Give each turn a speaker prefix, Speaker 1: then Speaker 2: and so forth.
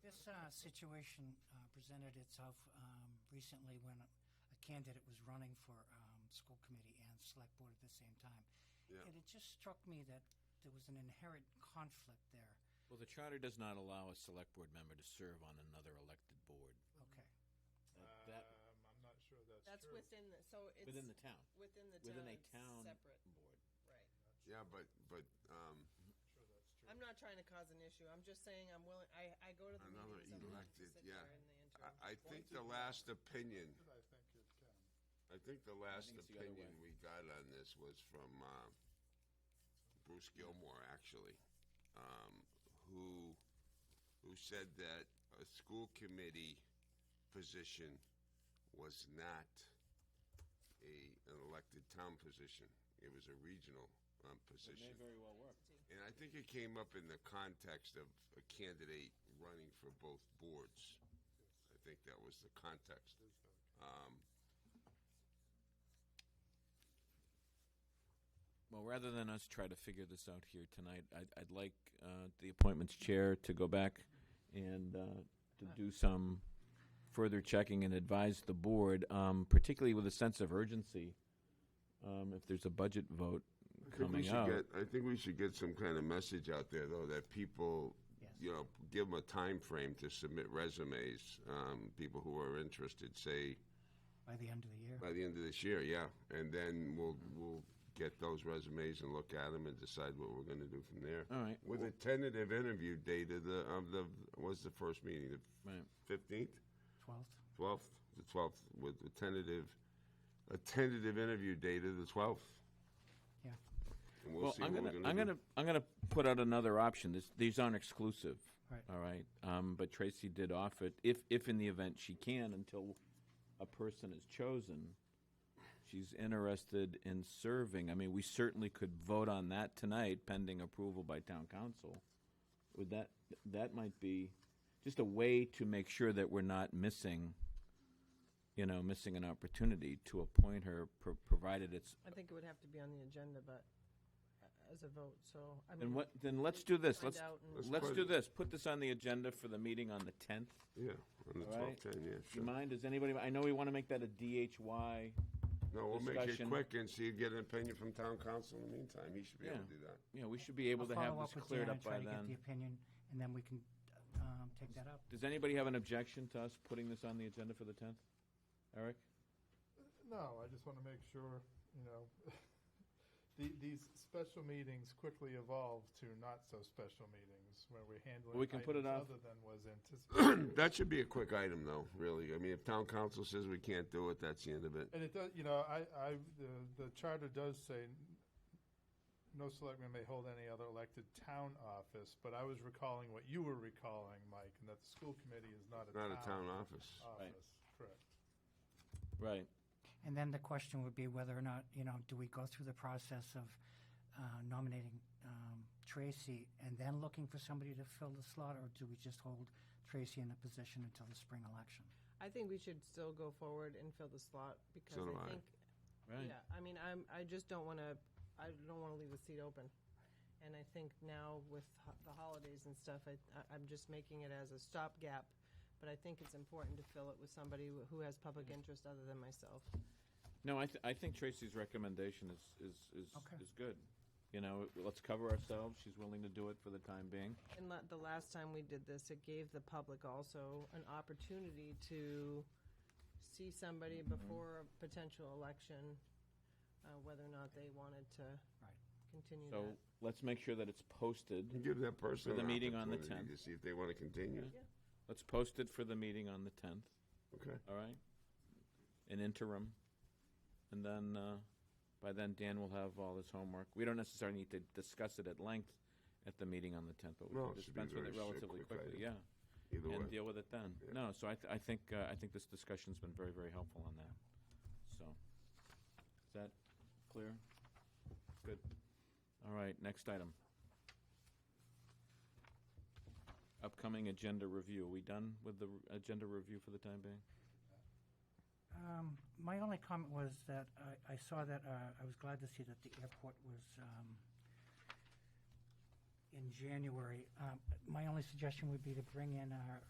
Speaker 1: uh, situation uh, presented itself um, recently when a candidate was running for um, school committee and select board at the same time.
Speaker 2: Yeah.
Speaker 1: And it just struck me that there was an inherent conflict there.
Speaker 3: Well, the charter does not allow a select board member to serve on another elected board.
Speaker 1: Okay.
Speaker 3: Uh, That- that-
Speaker 4: Um, I'm not sure that's
Speaker 5: That's
Speaker 4: true.
Speaker 5: within the, so it's.
Speaker 3: within the town.
Speaker 5: Within the town.
Speaker 3: Within a
Speaker 5: it's
Speaker 3: town
Speaker 5: Separate,
Speaker 3: board.
Speaker 5: right.
Speaker 2: Yeah, but, but, um,
Speaker 4: Sure that's true.
Speaker 5: I'm not trying to cause an issue. I'm just saying I'm willing, I, I go to the
Speaker 2: another
Speaker 5: meetings. I'm willing to
Speaker 2: elected,
Speaker 5: sit
Speaker 2: yeah.
Speaker 5: there in the interim.
Speaker 2: I, I think the last opinion,
Speaker 4: I think it can.
Speaker 2: I think the last
Speaker 3: think it's the other
Speaker 2: opinion we
Speaker 3: way.
Speaker 2: got on this was from, uh, Bruce Gilmore, actually, um, who, who said that a school committee position was not a, an elected town position. It was a regional, um,
Speaker 3: It
Speaker 2: position.
Speaker 3: may very well work.
Speaker 2: And I think it came up in the context of a candidate running for both boards. I think that was the context.
Speaker 4: It is okay.
Speaker 2: Um,
Speaker 3: Well, rather than us try to figure this out here tonight, I'd, I'd like uh, the appointments chair to go back and uh, to do some further checking and advise the board, um, particularly with a sense of urgency, um, if there's a budget vote
Speaker 2: I think we
Speaker 3: coming
Speaker 2: should
Speaker 3: up.
Speaker 2: get, I think we should get some kind of message out there, though, that people,
Speaker 1: Yes.
Speaker 2: you know, give them a time frame to submit resumes. Um, people who are interested, say,
Speaker 1: By the end of the year.
Speaker 2: by the end of this year, yeah. And then we'll, we'll get those resumes and look at them and decide what we're gonna do from there.
Speaker 3: All right.
Speaker 2: With a tentative interview date of the, of the, was the first meeting,
Speaker 3: Right.
Speaker 2: the fifteenth?
Speaker 1: 12th?
Speaker 2: twelfth, the twelfth, with a tentative, a tentative interview date of the twelfth,
Speaker 1: Yeah.
Speaker 2: and we'll,
Speaker 3: Well,
Speaker 2: see
Speaker 3: I'm
Speaker 2: what
Speaker 3: gonna,
Speaker 2: we're
Speaker 3: I'm
Speaker 2: gonna
Speaker 3: gonna, I'm gonna put out another option. This, these aren't exclusive.
Speaker 1: Right.
Speaker 3: All right. Um, but Tracy did offer it. If, if in the event she can, until a person is chosen, she's interested in serving. I mean, we certainly could vote on that tonight, pending approval by town council. Would that, that might be just a way to make sure that we're not missing, you know, missing an opportunity to appoint her, pro- provided it's
Speaker 5: I think it would have to be on the agenda, but uh, as a vote, so, I mean.
Speaker 3: Then what, then let's do this,
Speaker 5: Find
Speaker 3: let's,
Speaker 5: out and-
Speaker 2: Let's
Speaker 3: let's
Speaker 2: put
Speaker 3: do
Speaker 2: it-
Speaker 3: this, put this on the agenda for the meeting on the tenth,
Speaker 2: do. Yeah, on the
Speaker 3: all right?
Speaker 2: twelfth, ten, yeah,
Speaker 3: Do
Speaker 2: sure.
Speaker 3: you mind, does anybody, I know we want to make that a DHY,
Speaker 2: No, we'll make it
Speaker 3: discussion.
Speaker 2: quick and see, get an opinion from town council in the meantime, he should be able
Speaker 3: Yeah.
Speaker 2: to do that.
Speaker 3: you know, we should be able
Speaker 1: I'll
Speaker 3: to
Speaker 1: follow
Speaker 3: have
Speaker 1: up
Speaker 3: this
Speaker 1: with
Speaker 3: cleared
Speaker 1: Jan
Speaker 3: up
Speaker 1: and
Speaker 3: by
Speaker 1: try to get the
Speaker 3: then.
Speaker 1: opinion, and then we can um, take that up.
Speaker 3: Does anybody have an objection to us putting this on the agenda for the tenth? Eric?
Speaker 4: No, I just want to make sure, you know, the, these special meetings quickly evolve to not so special meetings where we're handling
Speaker 3: We can put it
Speaker 4: items
Speaker 3: off.
Speaker 4: other than was anticipated.
Speaker 2: That should be a quick item, though, really, I mean, if town council says we can't do it, that's the end of it.
Speaker 4: And it does, you know, I, I, the, the charter does say no selectman may hold any other elected town office, but I was recalling what you were recalling, Mike, and that the school committee is not a
Speaker 2: Not
Speaker 4: town.
Speaker 2: a town office.
Speaker 4: Office, correct.
Speaker 3: Right,
Speaker 1: And then the question would be whether or not, you know, do we go through the process of uh, nominating um, Tracy and then looking for somebody to fill the slot, or do we just hold Tracy in the position until the spring election?
Speaker 5: I think we should still go forward and fill the slot because
Speaker 2: So do
Speaker 5: I
Speaker 2: I.
Speaker 5: think,
Speaker 3: right.
Speaker 5: yeah, I mean, I'm, I just don't want to, I don't want to leave the seat open. And I think now with ho- the holidays and stuff, I, I- I'm just making it as a stopgap. But I think it's important to fill it with somebody who who has public
Speaker 3: Mm-hmm.
Speaker 5: interest other than myself.
Speaker 3: No, I, th- I think Tracy's recommendation is, is, is,
Speaker 1: Okay.
Speaker 3: is good. You know, let's cover ourselves, she's willing to do it for the time being.
Speaker 5: And la- the last time we did this, it gave the public also an opportunity to see somebody
Speaker 3: Mm-hmm.
Speaker 5: before a potential election, uh, whether or not they wanted to
Speaker 1: Right.
Speaker 5: continue
Speaker 3: So
Speaker 5: that.
Speaker 3: let's make sure that it's posted.
Speaker 2: Give that person
Speaker 3: For the
Speaker 2: an
Speaker 3: meeting on the
Speaker 2: opportunity
Speaker 3: 10th.
Speaker 2: To see if they wanna continue,
Speaker 5: Yeah.
Speaker 3: Let's post it for the meeting on the tenth,
Speaker 2: okay?
Speaker 3: all right? An interim. And then, uh, by then Dan will have all his homework. We don't necessarily need to discuss it at length at the meeting on the tenth, but we
Speaker 2: No,
Speaker 3: can
Speaker 2: it should be
Speaker 3: dispense with
Speaker 2: very
Speaker 3: it relatively
Speaker 2: quick
Speaker 3: quickly,
Speaker 2: item.
Speaker 3: yeah.
Speaker 2: Either
Speaker 3: And
Speaker 2: way,
Speaker 3: deal with it then.
Speaker 2: Yeah.
Speaker 3: No, so I, th- I think, uh, I think this discussion's been very, very helpful on that, so. Is that clear? Good. All right, next item. Upcoming agenda review. Are we done with the r- agenda review for the time being?
Speaker 1: Um, my only comment was that I, I saw that, uh, I was glad to see that the airport was, um, in January. Um, my only suggestion would be to bring in our,